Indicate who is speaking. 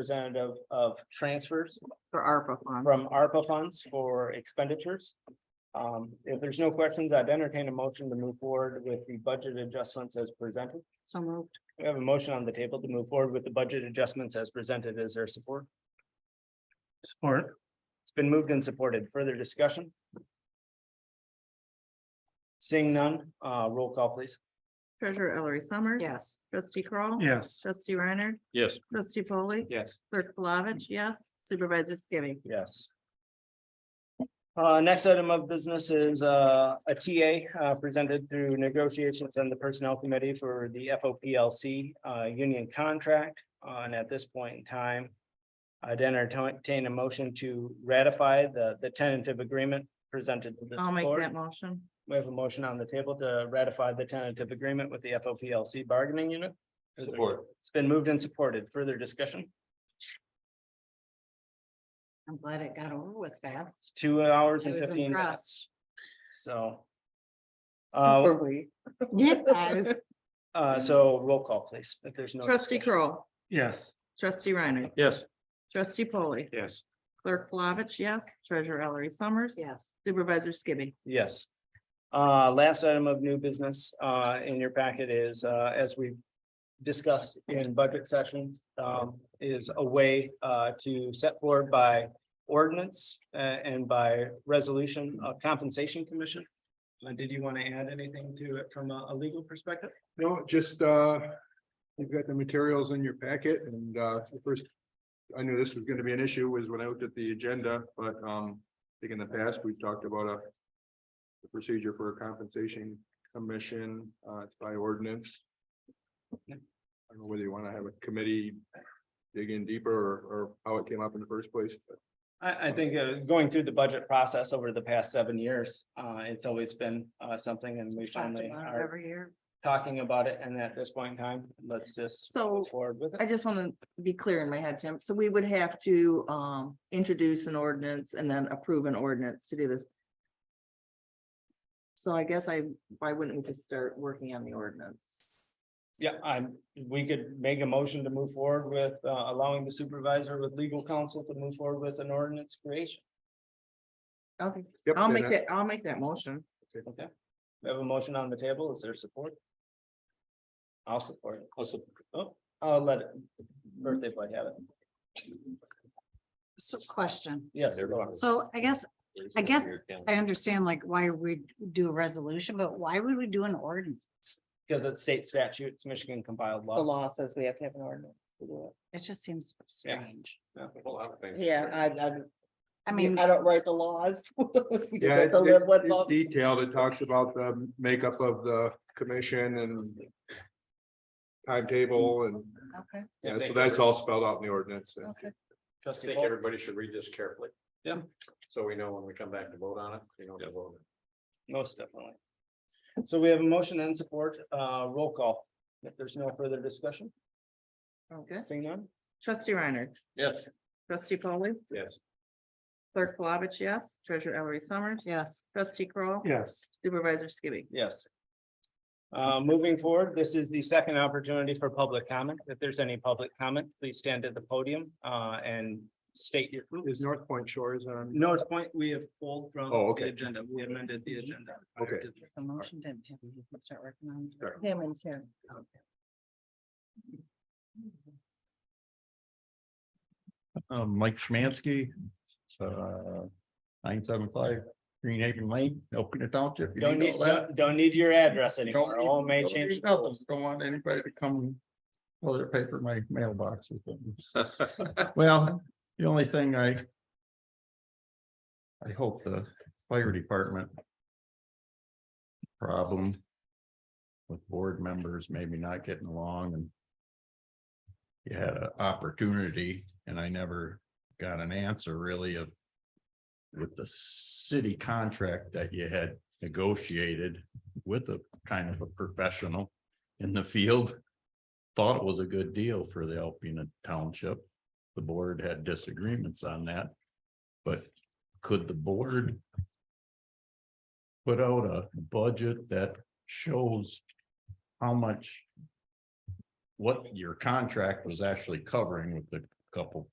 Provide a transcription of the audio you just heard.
Speaker 1: representative of transfers
Speaker 2: for ARPA funds.
Speaker 1: from ARPA funds for expenditures. Um, if there's no questions, I'd entertain a motion to move forward with the budget adjustments as presented.
Speaker 2: So moved.
Speaker 1: We have a motion on the table to move forward with the budget adjustments as presented. Is there support? Support. It's been moved and supported. Further discussion? Seeing none, uh, roll call please.
Speaker 2: Treasurer Ellery Summers.
Speaker 3: Yes.
Speaker 2: Trustee Crawl.
Speaker 4: Yes.
Speaker 2: Trustee Reiner.
Speaker 4: Yes.
Speaker 2: Trustee Foley,
Speaker 4: Yes.
Speaker 2: Clerk Flavich, yes. Supervisor Skibby.
Speaker 1: Yes. Uh, next item of business is, uh, a TA, uh, presented through negotiations and the Personnel Committee for the FOPLC, uh, union contract. Uh, And at this point in time, I'd entertain a motion to ratify the, the tentative agreement presented to this
Speaker 2: I'll make that
Speaker 1: board.
Speaker 2: motion.
Speaker 1: We have a motion on the table to ratify the tentative agreement with the FOPLC bargaining unit. Is there-
Speaker 4: Support.
Speaker 1: It's been moved and supported. Further discussion?
Speaker 3: I'm glad it got over with fast.
Speaker 1: two hours and
Speaker 3: I was
Speaker 1: fifteen minutes.
Speaker 3: impressed.
Speaker 1: So. Uh,
Speaker 3: I was-
Speaker 1: uh, so roll call, please, if there's no.
Speaker 2: Trustee
Speaker 1: discussion.
Speaker 2: Crawl.
Speaker 4: Yes.
Speaker 2: Trustee Reiner.
Speaker 4: Yes.
Speaker 2: Trustee Foley,
Speaker 4: Yes.
Speaker 2: Clerk Flavich, yes. Treasurer Ellery Summers.
Speaker 3: Yes,
Speaker 2: Supervisor Skibby.
Speaker 1: Yes. Uh, last item of new business, uh, in your packet is, uh, as we discussed in budget sessions, um, is a way, uh, to set forward by ordinance, uh, and by resolution of compensation commission. Uh, did you want to add anything to it from a a legal perspective?
Speaker 5: No, just, uh, you've got the materials in your packet and, uh, the first, I knew this was gonna be an issue was when I looked at the agenda, but, um, I think in the past, we've talked about a the procedure for a compensation commission, uh, it's by ordinance. I don't know whether you wanna have a committee dig in deeper or, or how it came up in the first place, but
Speaker 1: I, I think uh, going through the budget process over the past seven years, uh, it's always been, uh, something and we
Speaker 3: talked
Speaker 1: finally
Speaker 3: about it
Speaker 1: are
Speaker 3: every year.
Speaker 1: talking about it. And at this point in time, let's just
Speaker 2: So
Speaker 1: go forward with
Speaker 2: I
Speaker 1: it.
Speaker 2: just want to be clear in my head, Jim. So we would have to um introduce an ordinance and then approve an ordinance to do this. So I guess I, why wouldn't we just start working on the ordinance?
Speaker 1: Yeah, I'm, we could make a motion to move forward with, uh, allowing the supervisor with legal counsel to move forward with an ordinance creation.
Speaker 2: Okay,
Speaker 5: Yep,
Speaker 2: I'll
Speaker 5: and
Speaker 2: make
Speaker 5: I-
Speaker 2: that, I'll make that motion.
Speaker 1: Okay. We have a motion on the table. Is there support? I'll support it. I'll support. Oh, I'll let it, birthday boy have it.
Speaker 3: So question.
Speaker 1: Yes.
Speaker 3: So I guess, I guess I understand like why we do a resolution, but why would we do an ordinance?
Speaker 1: Because it's state statutes, Michigan compiled
Speaker 2: The law says we have to have an ordinance. to do
Speaker 3: It just seems
Speaker 1: Yeah.
Speaker 3: strange.
Speaker 2: it. Yeah, I, I,
Speaker 3: I mean,
Speaker 2: I don't write the laws. We just "Oh,
Speaker 5: Yeah,
Speaker 2: have
Speaker 5: it's
Speaker 2: to live with
Speaker 5: it's
Speaker 2: them.
Speaker 5: detailed. It talks about the makeup of the commission and timetable and,
Speaker 3: okay,
Speaker 5: yeah, so that's all spelled out in the ordinance. and-
Speaker 3: okay.
Speaker 4: I
Speaker 1: Trustee
Speaker 4: think
Speaker 1: Paul,
Speaker 4: everybody should read this carefully.
Speaker 1: Yeah.
Speaker 4: So we know when we come back to vote on it, we know to vote.
Speaker 1: most definitely. So we have a motion and support, uh, roll call. If there's no further discussion,
Speaker 2: Okay.
Speaker 1: seeing none,
Speaker 2: Trustee Reiner,
Speaker 4: Yes.
Speaker 2: trustee Polly,
Speaker 4: Yes.
Speaker 2: clerk Flavich, yes. Treasurer Ellery Summers,
Speaker 3: Yes,
Speaker 2: trustee Kroll,
Speaker 4: Yes.
Speaker 2: supervisor Skibby.
Speaker 1: yes. Uh, moving forward, this is the second opportunity for public comment. If there's any public comment, please stand at the podium, uh, and state your.
Speaker 5: Is North Point Shores on?
Speaker 1: North Point, we have pulled from the
Speaker 5: Oh, okay.
Speaker 1: agenda. We amended the agenda.
Speaker 5: Okay.
Speaker 3: the motion didn't have, you can start working on
Speaker 5: Sure.
Speaker 3: him and Tim.
Speaker 6: Um, Mike Schmansky, uh, nine seven five Green Haven Lane, Elkina Township. You
Speaker 1: Don't
Speaker 6: need
Speaker 1: need,
Speaker 6: all that?
Speaker 1: don't- don't need your address
Speaker 6: Don't
Speaker 1: anymore.
Speaker 6: need-
Speaker 1: All may
Speaker 6: don't
Speaker 1: change.
Speaker 6: need nothing. Don't want anybody to come, well, their paper, in my mailbox. or something. Well, the only thing I I hope the fire department problem with board members maybe not getting along and you had an opportunity and I never got an answer really of with the city contract that you had negotiated with a kind of a professional in the field. Thought it was a good deal for the Alpena Township. The board had disagreements on that. But could the board put out a budget that shows how much what your contract was actually covering with the couple